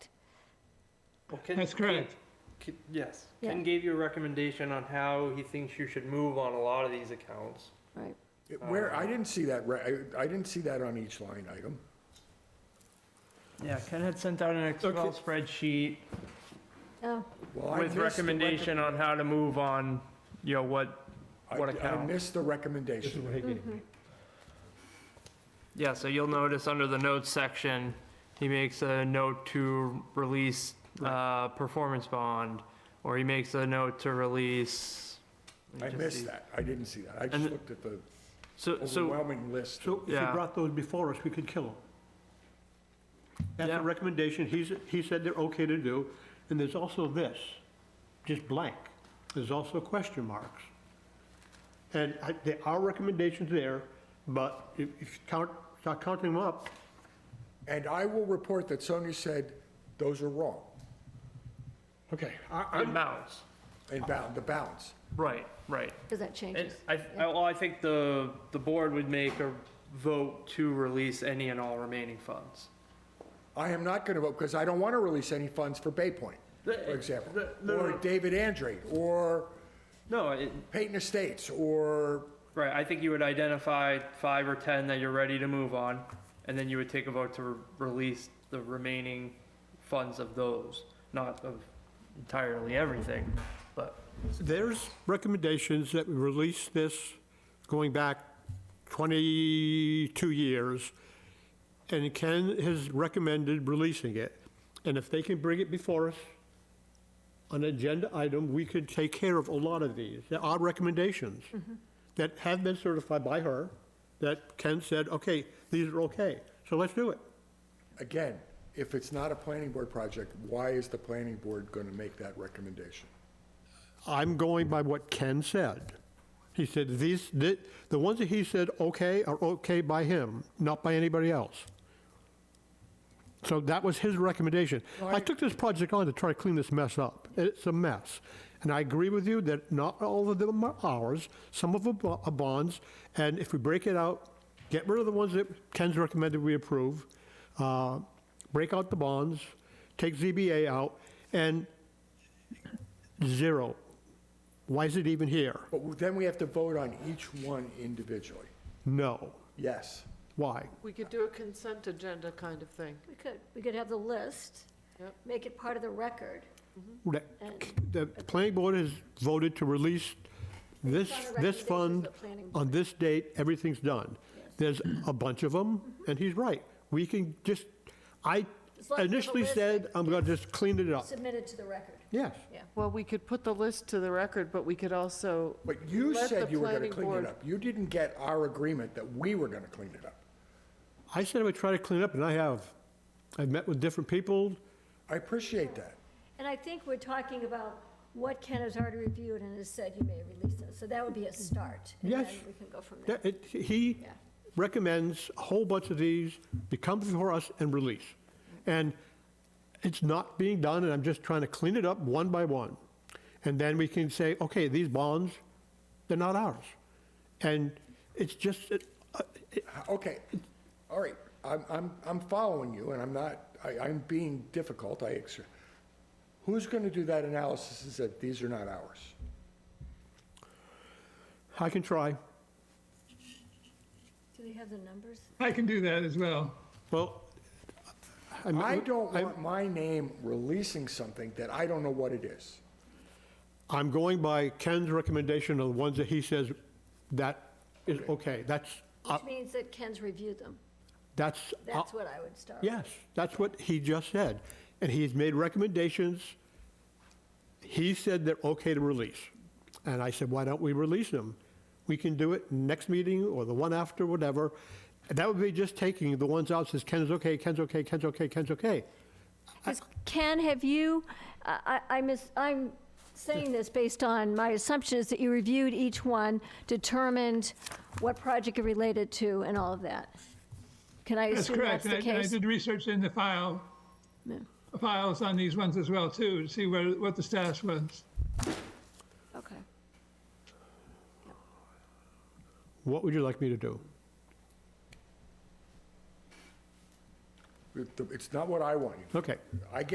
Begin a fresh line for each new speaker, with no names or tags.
Well, Ken-
That's correct.
Ken- Ken- Yes,
Yeah.
Ken gave you a recommendation on how he thinks you should move on a lot of these accounts.
right.
It- Where,
Uh,
I didn't see that, re- I I didn't see that on each line item.
Yeah, Ken had sent out an Excel
Okay.
spreadsheet
Oh,
Well, I missed
with
the recom-
recommendation on how to move on, you know, what,
I-
what
I
account.
missed the recommendation.
yeah, so you'll notice under the notes section, he makes a note to release, uh, performance bond, or he makes a note to release.
I
Let me just see.
missed that. I didn't see that. I just
And-
looked at the
So, so,
overwhelming list.
So if you
Yeah.
brought those before us, we could kill them. That's
Yeah.
a recommendation, he's, he said they're okay to do, and there's also this, just blank. There's also question marks. And I- there are recommendations there, but if if you count, start counting them up,
And I will report that Sonia said, those are wrong,
okay, I,
it
I'm,
mounts,
and bound, the balance.
right, right.
because that
And
changes.
I, I- well, I think the, the board would make a vote to release any and all remaining funds.
I am not going to vote, because I don't want to release any funds for Bay Point, for
The-
example,
the- no,
or
no.
David Andrade, or
No, it,
Peyton Estates, or,
right, I think you would identify five or 10 that you're ready to move on, and then you would take a vote to re- release the remaining funds of those, not of entirely everything, but.
there's recommendations that we release this going back 22 years, and Ken has recommended releasing it. And if they can bring it before us, an agenda item, we could take care of a lot of these. There are recommendations that have been certified by her, that Ken said, okay, these are okay, so let's do it.
again, if it's not a planning board project, why is the planning board going to make that recommendation?
I'm going by what Ken said. He said, these, the, the ones that he said okay are okay by him, not by anybody else. So that was his recommendation. I took this project on to try to clean this mess up. It's a mess. And I agree with you that not all of them are ours, some of them bo- are bonds, and if we break it out, get rid of the ones that Ken's recommended we approve, uh, break out the bonds, take ZBA out, and Zero. Why is it even here?
But then we have to vote on each one individually.
No.
Yes.
Why?
We could do a consent agenda kind of thing.
We could, we could have the list,
Yep.
make it part of the record.
The the planning board has voted to release this,
It's on the
this
recommendations
fund
of the planning board.
on this date, everything's done. There's a bunch of them, and he's right. We can just, I
As long as we have a
initially
list
said,
that
I'm gonna just clean it up.
Submitted to the record.
Yes.
Well, we could put the list to the record, but we could also,
But you
Let
said
the
you were going to
planning
clean
board-
it up. You didn't get our agreement that we were going to clean it up.
I said I would try to clean up, and I have. I've met with different people.
I appreciate that.
And I think we're talking about what Ken has already reviewed and has said you may release it. So that would be a start. And
Yes.
then we can go from there.
That- it- He
Yeah.
recommends a whole bunch of these, to come before us and release. And it's not being done, and I'm just trying to clean it up one by one. And then we can say, okay, these bonds, they're not ours. And it's just, it- uh, it-
Okay, all right, I'm, I'm, I'm following you, and I'm not, I, I'm being difficult, I, ex- who's going to do that analysis is that these are not ours?
I can try.
Do they have the numbers?
I can do that as well.
Well. I'm-
I don't
I'm-
want my name releasing something that I don't know what it is.
I'm going by Ken's recommendation on the ones that he says that is okay. That's, uh,
Which means that Ken's reviewed them.
that's. uh,
That's what I would start. with.
Yes, that's what he just said. And he's made recommendations. He said they're okay to release. And I said, why don't we release them? We can do it next meeting or the one after, whatever. And that would be just taking the ones out, says Ken's okay, Ken's okay, Ken's okay, Ken's okay.
Because Ken, have you, uh, I, I- I miss, I'm saying this based on my assumption is that you reviewed each one, determined what project it related to and all of that. Can I
That's
assume that's
correct.
the
and I- I
case?
did research in the file, files on these ones as well too, to see what, what the status was.
Okay.
What would you like me to do?
It- It's not what I want you to do.
Okay.
I